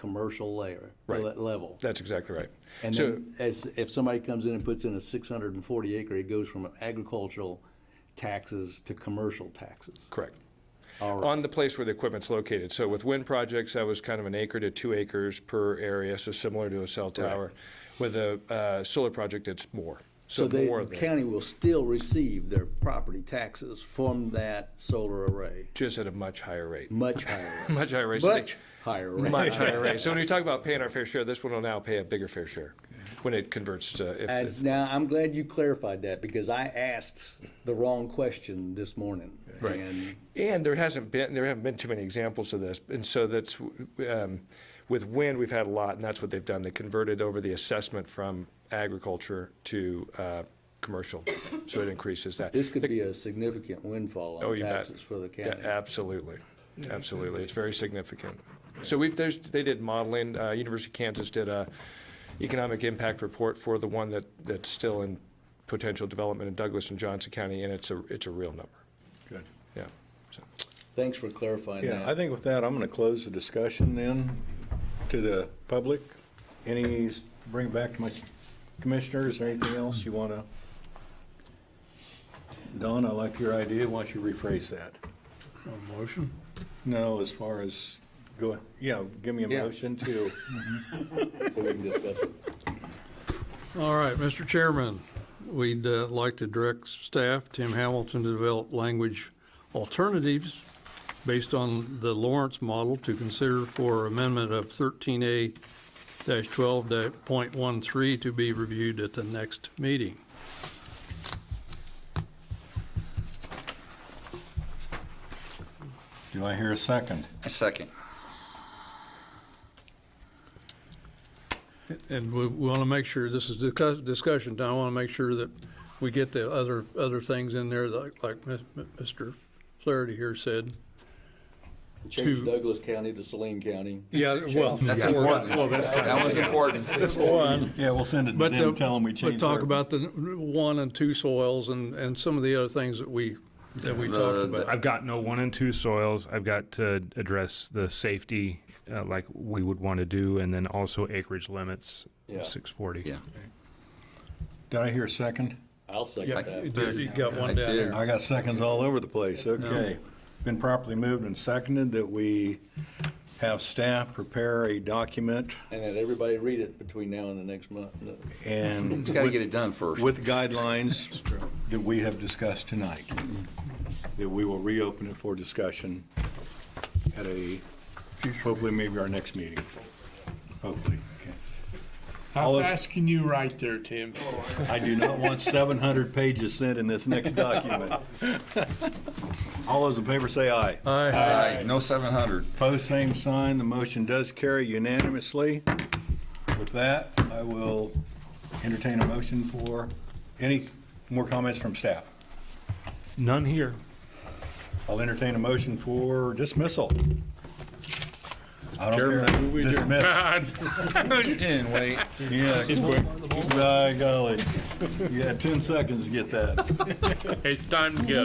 commercial layer, Right. le- level. That's exactly right. And So- then as, if somebody comes in and puts in a six hundred and forty acre, it goes from agricultural taxes to commercial taxes. Correct. All right. On the place where the equipment's located. So with wind projects, that was kind of an acre to two acres per area, so similar to a cell tower. With a uh, solar project, it's more. So So more the than, county will still receive their property taxes from that solar array, just at a much higher rate. much higher. rate. Much higher rate. So they- Much higher rate. Much higher rate. So when you talk about paying our fair share, this one will now pay a bigger fair share when it converts to, if- And if, now, I'm glad you clarified that because I asked the wrong question this morning. Right. And And there hasn't been, there haven't been too many examples of this. And so that's, um, with wind, we've had a lot, and that's what they've done. They converted over the assessment from agriculture to uh, commercial, so it increases that. this could be a significant windfall Oh, on you bet. taxes for the Yeah, county. Absolutely, absolutely. It's very significant. So we've, there's, they did modeling. Uh, University of Kansas did a economic impact report for the one that, that's still in potential development in Douglas and Johnson County, and it's a, it's a real number. Good. Yeah. So- Thanks for clarifying Yeah, I that. think with that, I'm going to close the discussion then to the public. Any, s- bring it back to my commissioners, or anything else you want to? Don, I like your idea. Why don't you rephrase that? Motion? No, as far as, go, yeah, give me a Yeah. motion to, So we can discuss it. All right, Mr. Chairman, we'd uh, like to direct staff, Tim Hamilton, to develop language alternatives based on the Lawrence model to consider for amendment of 13A dash 12 dash point 13 to be reviewed at the next meeting. do I hear a second? A second. And we want to make sure, this is discuss- discussion time, I want to make sure that we get the other, other things in there, like, like Mis- Mr. Flaherty here said. Change To- Douglas County to Saline County. Yeah, well. That's important. That was important. One. Yeah, we'll send it But the- But talk about the one and two soils and, and some of the other things that we, that we talked The- about. I've got no one and two soils. I've got to address the safety, uh, like we would want to do, and then also acreage limits, Yeah. six forty. Yeah. Did I hear a second? I'll Yeah, second you that. did- you got I one down did. there. I got seconds all over the place, okay. Been properly moved and seconded that we have staff prepare a document And then everybody read it between now and the next month. No. and Just got to with- get it done first. with guidelines that we have discussed tonight, that we will reopen it for discussion at a, hopefully maybe our next meeting. Hopefully, okay. All How of- fast can you write there, Tim? I do not want 700 pages sent in this next document. All those in favor say aye. Aye. Aye. No 700. Pose same sign, the motion does carry unanimously. With that, I will entertain a motion for, any more comments from staff? None here. I'll entertain a motion for dismissal. I don't Chairman, I move we care. adjourn. Dismiss. And wait. Yeah. He's quick. By golly. You had 10 seconds to get that. It's time to go.